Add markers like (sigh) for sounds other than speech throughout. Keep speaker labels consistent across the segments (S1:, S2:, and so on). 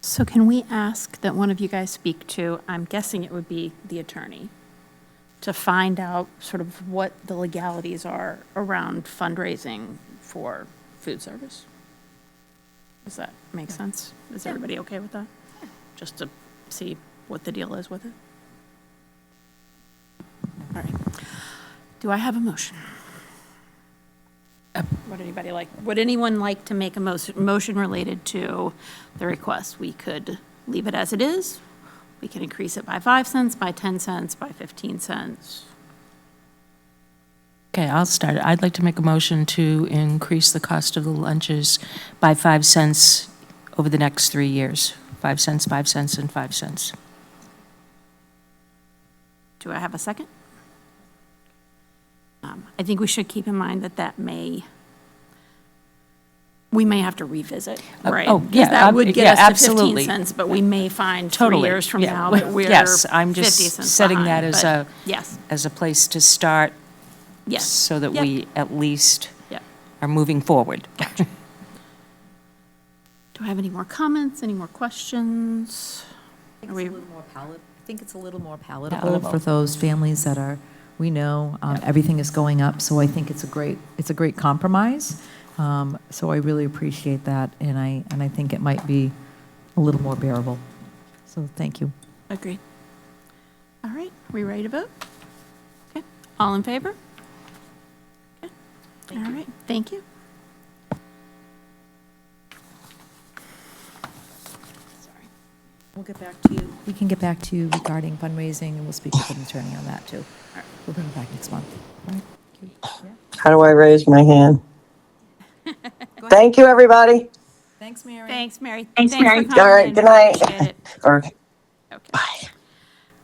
S1: So can we ask that one of you guys speak to, I'm guessing it would be the attorney, to find out sort of what the legalities are around fundraising for food service? Does that make sense? Is everybody okay with that? Just to see what the deal is with it? All right. Do I have a motion? Would anybody like, would anyone like to make a mo- motion related to the request? We could leave it as it is. We can increase it by 5 cents, by 10 cents, by 15 cents.
S2: Okay, I'll start. I'd like to make a motion to increase the cost of the lunches by 5 cents over the next three years. 5 cents, 5 cents, and 5 cents.
S1: Do I have a second? Um, I think we should keep in mind that that may, we may have to revisit, right?
S2: oh, yeah,
S1: Because that
S2: ab-
S1: would
S2: yeah,
S1: get us to 15
S2: absolutely.
S1: cents, but we may find three
S2: Totally,
S1: years from
S2: yeah. (laughs)
S1: now that we're 50
S2: Yes,
S1: cents
S2: I'm just setting that
S1: behind,
S2: as
S1: but
S2: a-
S1: Yes,
S2: As a place to start,
S1: yes.
S2: so that
S1: Yep,
S2: we at least
S1: yep.
S2: are moving forward.
S1: Do I have any more comments, any more questions?
S3: It's a
S1: Are we-
S3: little more palatable. I think it's a little more
S2: Palatable.
S3: palatable for those families that are, we know, um, everything is going up, so I think it's a great, it's a great compromise. Um, So I really appreciate that, and I, and I think it might be a little more bearable. So thank you.
S1: Agreed. All right, we ready to vote? Okay, all in favor? Okay. All right, thank you.
S3: We'll get back to you. We can get back to you regarding fundraising, and we'll speak with an attorney on that, too. We'll bring it back next month. All right?
S4: How do I raise my hand? Thank you, everybody.
S3: Thanks, Mary.
S1: Thanks, Mary. Thanks, Mary.
S4: All right, good night. Or
S1: Bye.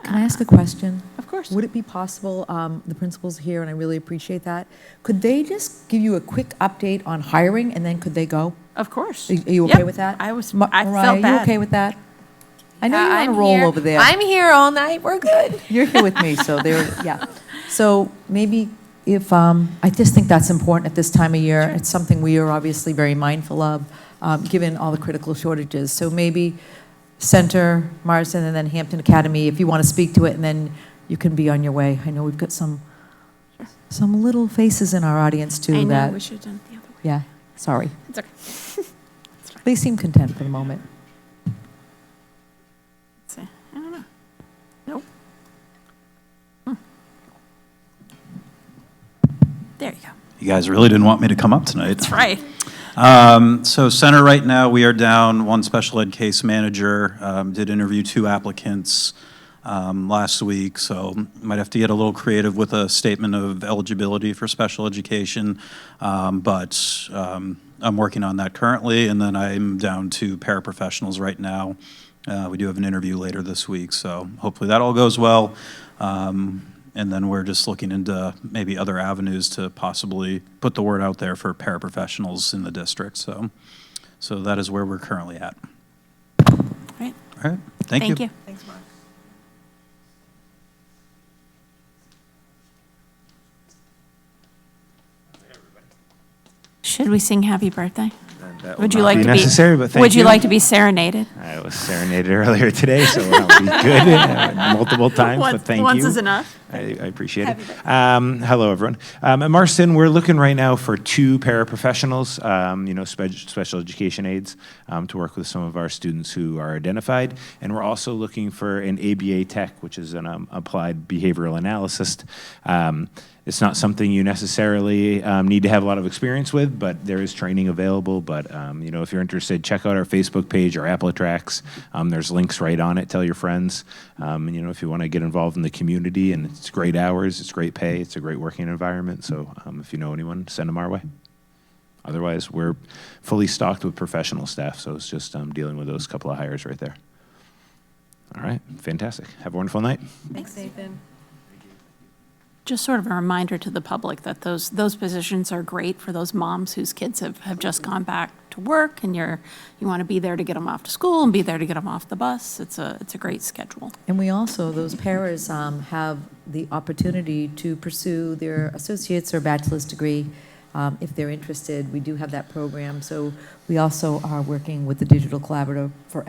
S3: Can I ask a question?
S1: Of course.
S3: Would it be possible, um, the principal's here, and I really appreciate that, could they just give you a quick update on hiring, and then could they go?
S1: Of course.
S3: Are are you
S1: Yep.
S3: okay with that?
S1: I was,
S3: Ma-
S1: I felt
S3: Mariah,
S1: bad.
S3: you okay with that? I know you're on
S5: I'm
S3: a roll
S5: here.
S3: over there.
S5: I'm here all night. We're good.
S3: (laughs) You're here with me, so there, yeah. So maybe if, um, I just think that's important at this time of year. It's something we are obviously very mindful of, um, given all the critical shortages. So maybe Center, Marsden, and then Hampton Academy, if you want to speak to it, and then you can be on your way. I know we've got some, some little faces in our audience
S1: I
S3: too
S1: know, we
S3: that,
S1: should have done it the other way.
S3: yeah, sorry.
S1: It's okay.
S3: They seem content for the moment.
S1: Let's see. I don't know. Nope. Hmm. There you go.
S6: You guys really didn't want me to come up tonight.
S1: That's right.
S6: Um, So center right now, we are down one special ed case manager. Um, Did interview two applicants um, last week, so might have to get a little creative with a statement of eligibility for special education. Um, But um, I'm working on that currently, and then I'm down to paraprofessionals right now. Uh, We do have an interview later this week, so hopefully that all goes well. Um, And then we're just looking into maybe other avenues to possibly put the word out there for paraprofessionals in the district. So, so that is where we're currently at.
S1: All right,
S6: All right, thank you.
S1: thank you. Should we sing happy birthday?
S7: That will
S1: Would you
S7: not
S1: like
S7: be
S1: to be?
S7: necessary, but thank
S1: Would you like to be serenaded?
S7: I was serenaded (laughs) earlier today, so I'll be good
S1: (laughs)
S7: uh, multiple times.
S1: Once-
S7: but thank
S1: once
S7: you.
S1: is enough.
S7: I, I appreciate it. Um, hello, everyone. Um, at Marston, we're looking right now for two paraprofessionals, um, you know, spe- special education aides, um, to work with some of our students who are identified, and we're also looking for an ABA tech, which is an um, applied behavioral analyst. Um, it's not something you necessarily um, need to have a lot of experience with, but there is training available. But um, you know, if you're interested, check out our Facebook page or Applitrak's. Um, there's links right on it. Tell your friends. Um, and, you know, if you want to get involved in the community, and it's great hours, it's great pay, it's a great working environment. So um, if you know anyone, send them our way. Otherwise, we're fully stocked with professional staff, so it's just um, dealing with those couple of hires right there. All right, fantastic. Have a wonderful night.
S3: Thanks, Nathan.
S1: Just sort of a reminder to the public that those, those positions are great for those moms whose kids have, have just gone back to work and you're, you want to be there to get them off to school and be there to get them off the bus. It's a, it's a great schedule.
S3: And we also, those paras um, have the opportunity to pursue their associate's or bachelor's degree um, if they're interested. We do have that program. So we also are working with the Digital Collaborative for